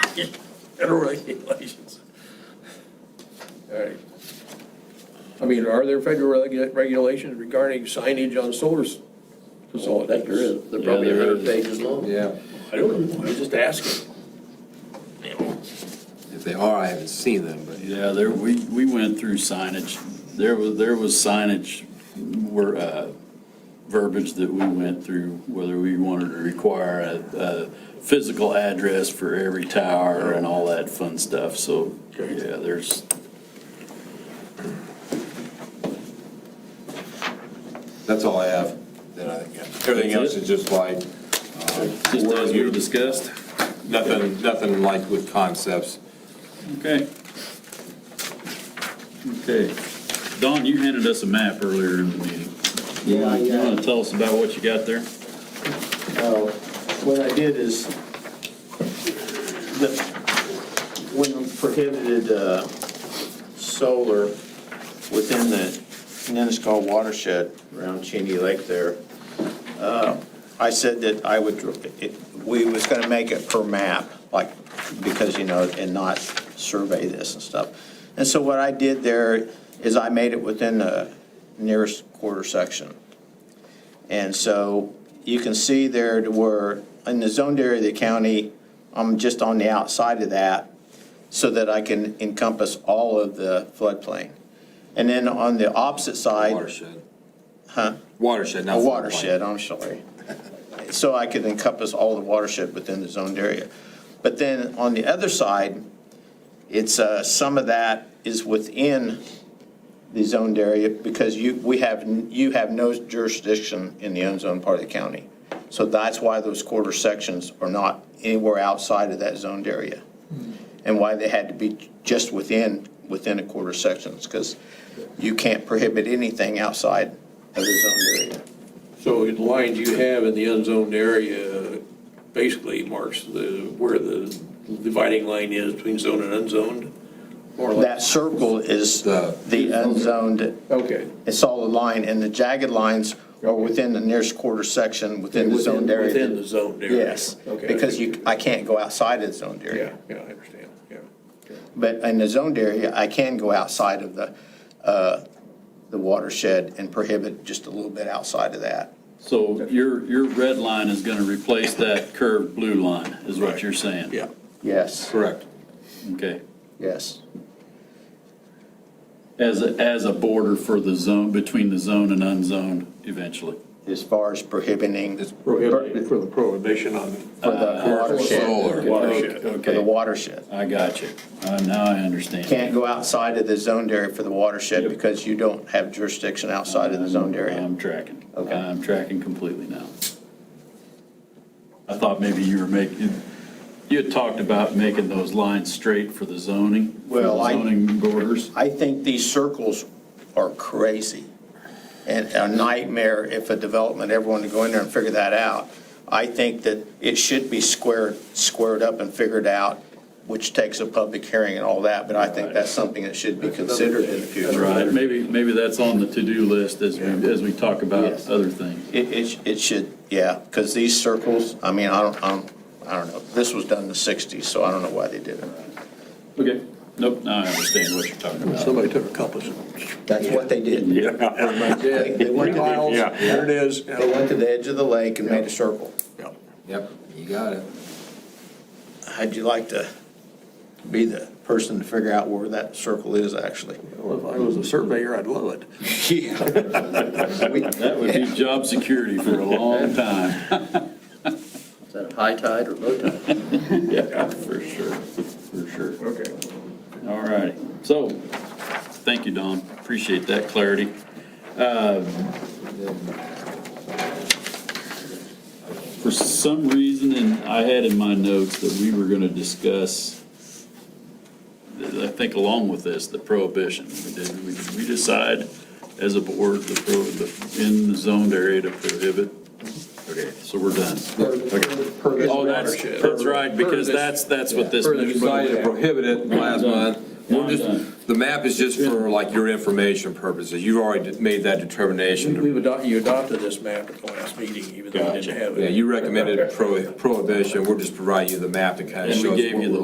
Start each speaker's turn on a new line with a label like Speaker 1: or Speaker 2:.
Speaker 1: get federal regulations. All right.
Speaker 2: I mean, are there federal regu- regulations regarding signage on solar s-
Speaker 1: So I think there
Speaker 2: facilities?
Speaker 1: is, they're probably a hundred pages long.
Speaker 3: Yeah,
Speaker 1: I don't know, I'm just asking. You know,
Speaker 3: if they are, I haven't seen them, but
Speaker 4: Yeah, there, we, we went through signage. There was, there was signage, were, uh, verbiage that we went through, whether we wanted to require a, a physical address for every tower and all that fun stuff, so,
Speaker 1: Okay.
Speaker 4: yeah, there's,
Speaker 3: that's all I have. Then I think, everything else is just like, uh,
Speaker 4: just as we discussed.
Speaker 3: nothing, nothing like with concepts.
Speaker 4: Okay. Okay. Don, you handed us a map earlier in the meeting.
Speaker 5: Yeah, I,
Speaker 4: You
Speaker 5: uh,
Speaker 4: wanna tell us about what you got there?
Speaker 5: uh, what I did is, the, when prohibited, uh, solar within the Nenasko watershed around Cheney Lake there, uh, I said that I would, it, we was gonna make it per map, like, because, you know, and not survey this and stuff. And so what I did there is I made it within the nearest quarter section. And so you can see there to where, in the zoned area of the county, I'm just on the outside of that so that I can encompass all of the floodplain. And then on the opposite side,
Speaker 3: Watershed.
Speaker 5: huh?
Speaker 3: Watershed, not.
Speaker 5: A
Speaker 3: floodplain.
Speaker 5: watershed, I'm sorry. So I could encompass all the watershed within the zoned area. But then on the other side, it's, uh, some of that is within the zoned area because you, we have, n- you have no jurisdiction in the unzoned part of the county. So that's why those quarter sections are not anywhere outside of that zoned area. And why they had to be just within, within a quarter sections, because you can't prohibit anything outside of the zoned area.
Speaker 2: So the lines you have in the unzoned area basically marks the, where the dividing line is between zone and unzoned? More or less?
Speaker 5: That circle is
Speaker 3: The-
Speaker 5: the unzoned,
Speaker 2: Okay.
Speaker 5: it's all a line, and the jagged lines are within the nearest quarter section, within the zoned
Speaker 2: Within
Speaker 5: area.
Speaker 2: the zoned area?
Speaker 5: Yes,
Speaker 2: Okay.
Speaker 5: because you, I can't go outside of the zoned
Speaker 2: Yeah,
Speaker 5: area.
Speaker 2: yeah, I understand, yeah. Okay.
Speaker 5: But in the zoned area, I can go outside of the, uh, the watershed and prohibit just a little bit outside of that.
Speaker 4: So your, your red line is gonna replace that curved blue line, is what you're saying?
Speaker 2: Yeah.
Speaker 5: Yes,
Speaker 3: Correct.
Speaker 4: Okay.
Speaker 5: yes,
Speaker 4: As, a as a border for the zone, between the zone and unzoned eventually.
Speaker 5: as far as prohibiting
Speaker 3: It's
Speaker 2: Prohibited for the prohibition on
Speaker 5: for
Speaker 2: Uh,
Speaker 5: the watershed,
Speaker 3: Solar.
Speaker 2: watershed.
Speaker 5: for the
Speaker 4: Okay,
Speaker 5: watershed.
Speaker 4: I got you. Uh, Now I understand.
Speaker 5: Can't go outside of the zoned area for the watershed because you don't have jurisdiction outside of the zoned area.
Speaker 4: I'm tracking.
Speaker 5: Okay.
Speaker 4: I'm tracking completely now. I thought maybe you were making, you had talked about making those lines straight for the zoning, for
Speaker 5: Well,
Speaker 4: the
Speaker 5: I-
Speaker 4: zoning borders.
Speaker 5: I think these circles are crazy and a nightmare if a development, ever wanted to go in there and figure that out. I think that it should be squared, squared up and figured out, which takes a public hearing and all that, but I think that's something that should be considered in the future.
Speaker 4: Right, maybe, maybe that's on the to-do list as, we as we talk about
Speaker 5: Yes.
Speaker 4: other things.
Speaker 5: It, it, it should, yeah, because these circles, I mean, I don't, I don't, I don't know. This was done in the 60s, so I don't know why they did it.
Speaker 4: Okay, nope, now I understand what you're talking about.
Speaker 2: Somebody took a compass and.
Speaker 5: That's what they did.
Speaker 2: Yeah,
Speaker 5: They went to the-
Speaker 2: miles,
Speaker 5: Yeah.
Speaker 2: there it is.
Speaker 5: They went to the edge of the lake and made a circle.
Speaker 2: Yeah.
Speaker 3: Yep, you got it.
Speaker 5: How'd you like to be the person to figure out where that circle is actually?
Speaker 2: Well, if I was a surveyor, I'd love it.
Speaker 4: That would be job security for a long time.
Speaker 1: Is that a high tide or low tide?
Speaker 4: Yeah, for sure, for sure.
Speaker 2: Okay.
Speaker 4: All right, so, thank you, Don, appreciate that clarity. Uh, For some reason, and I had in my notes that we were gonna discuss, I think along with this, the prohibition. We did, we did we decide as a board, the pro, the, in the zoned area to prohibit. Okay. So we're done. Oh, that's,
Speaker 2: watershed.
Speaker 4: that's right, because that's, that's what this.
Speaker 3: For the decided to prohibit it last month.
Speaker 4: Now
Speaker 3: We're
Speaker 4: I'm done.
Speaker 3: just, the map is just for like your information purposes. You've already made that determination. to
Speaker 2: We've adopted, you adopted this map at the last meeting, even though you didn't have it.
Speaker 3: Yeah, you recommended prohi- prohibition, we're just providing you the map to kind of
Speaker 4: And
Speaker 3: show
Speaker 4: we
Speaker 3: us what
Speaker 4: gave you
Speaker 3: we're
Speaker 4: the